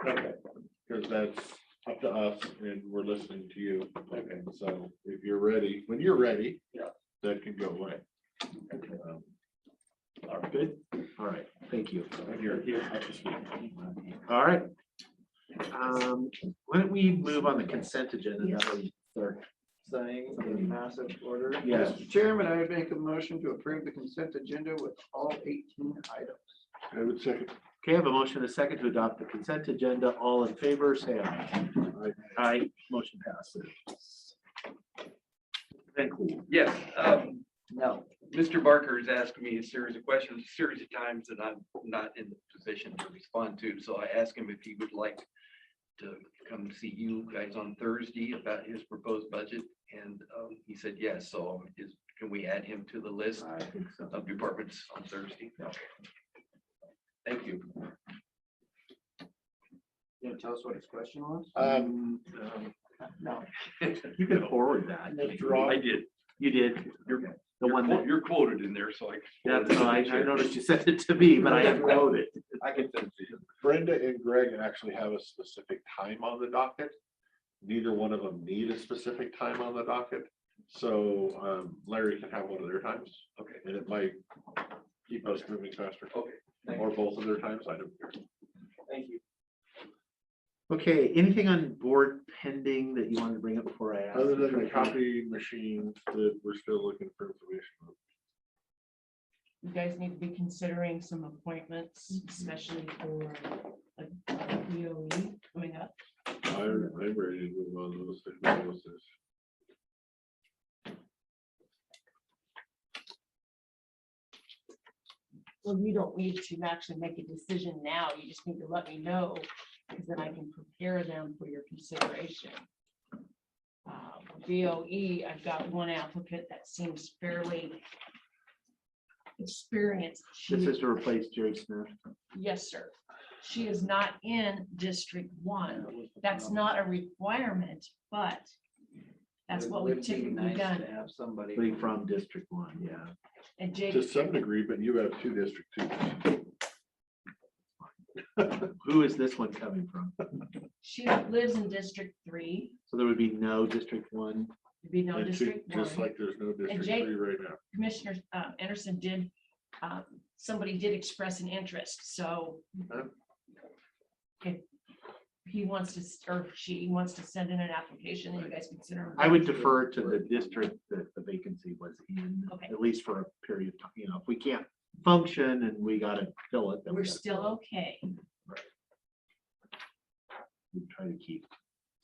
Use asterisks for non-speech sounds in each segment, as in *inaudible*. Okay, because that's up to us and we're listening to you. Okay. So if you're ready, when you're ready. Yeah. That can go away. Um, All right, good. All right, Thank you. You're here. All right. Um, why don't we move on the consent agenda? That way start Things in massive order. Yeah. Mr. Chairman, I would make a motion to approve the consent agenda with all eighteen items. I would second. Okay, I have a motion and a second to adopt the consent agenda. All in favor, say aye. Aye, motion passes. Thank you. Yes, um, No. Mr. Barker has asked me a series of questions, a series of times that I'm not in the position to respond to. So I asked him if he would like to come see you guys on Thursday about his proposed budget. And um, he said yes, so is, can we add him to the list I think so. of departments on Thursday? Thank you. You gonna tell us what his question was? Um, No. *laughs* You can forward that. Mr. Ross, I did. You did. You're- The one that, You're quoted in there, so I. that's, I I noticed you sent it to me, *laughs* but I didn't quote it. I can send it to you. Brenda and Greg actually have a specific time on the docket. Neither one of them need a specific time on the docket. So um, Larry can have one of their times. Okay. And it might keep us moving faster. Okay, thank Or both of their times, I don't care. Thank you. Okay, anything on board pending that you wanted to bring up before I ask? Other than the treasurer? copy machine that we're still looking for information. on. you guys need to be considering some appointments, especially for a a DOE coming up. I, I'm ready to move on those things. Well, you don't need to actually make a decision now. You just need to let me know, because then I can prepare them for your consideration. Um, DOE, I've got one applicant that seems fairly experienced. She- This is to replace Jerry Smith. Yes, sir. She is not in District One. That's not a requirement, but that's It what we've would be typically nice done. To have somebody. Somebody from District One, yeah. And Jake, To some degree, but you have two district two. Who is this one coming from? she lives in District Three, So there would be no District One. there'd be no And two- District Just One. like there's no district Jake- three right now. Commissioner uh, Anderson did, um, somebody did express an interest, so Okay. if he wants to, s- or if she wants to send in an application, then you guys consider. I would defer to the district that the vacancy was in, Okay. at least for a period of time. You know, if we can't function and we gotta fill it, then we We're gotta still fill okay. it. We Try to keep.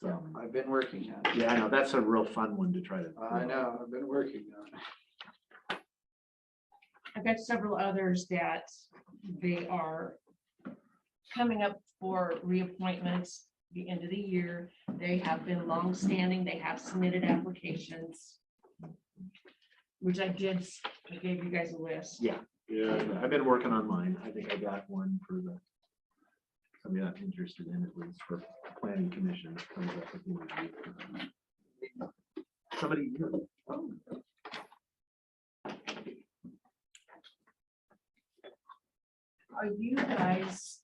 Yeah, some- I've been working on it. Yeah, I know. That's a real fun one to try to. I know, I've been working on it. I've got several others that they are coming up for reappointments the end of the year. They have been longstanding. They have submitted applications. Which I did, s- I gave you guys a list. Yeah. Yeah, I've been working on mine. I think I got one for the. Somebody I'm interested in at least for planning commission. that comes up with one of you. Somebody. oh, you know. Are you guys?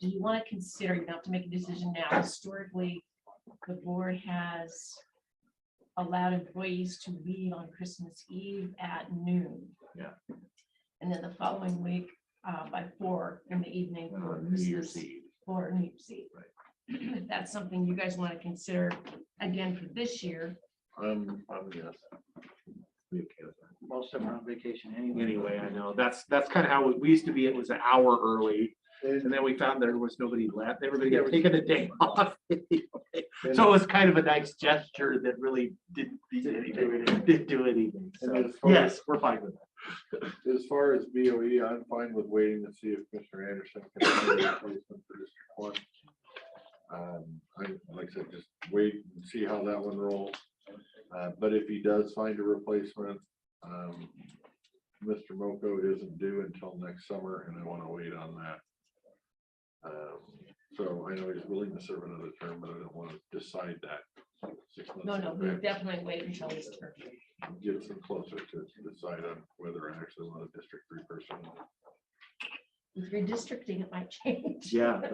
Do you want to consider, you don't have to make a decision now, historically, the board has allowed employees to leave on Christmas Eve at noon. Yeah. And then the following week, uh, by four in the evening. Uh, for New Year's Christmas Eve. Or New Year's Eve. If that's something you guys want to consider again for this year, I'm, I'm yes. We okay with that? Most of them are on vacation anyway. Anyway, I know, that's, that's kind of how, we- we used to be, it was an hour early, and And- then we found there was nobody left, everybody had taken a day *laughs* off. So it was kind of a nice gesture that really didn't, do anything, didn't do anything, And so, as far as- yes, we're fine with that. As far as BOE, I'm fine with waiting to see if Mr. Anderson can find a replacement for District One. Um, I, like I said, just wait and see how that one rolls. Uh, but if he does find a replacement, um, Mr. Moko isn't due until next summer and I want to wait on that. Um, so I know he's willing to serve another term, but I don't want to decide that. six months no, no, in we advance definitely wait until this term. gets them closer to decide on whether I actually want a district three person. With redistricting, it might change. Yeah,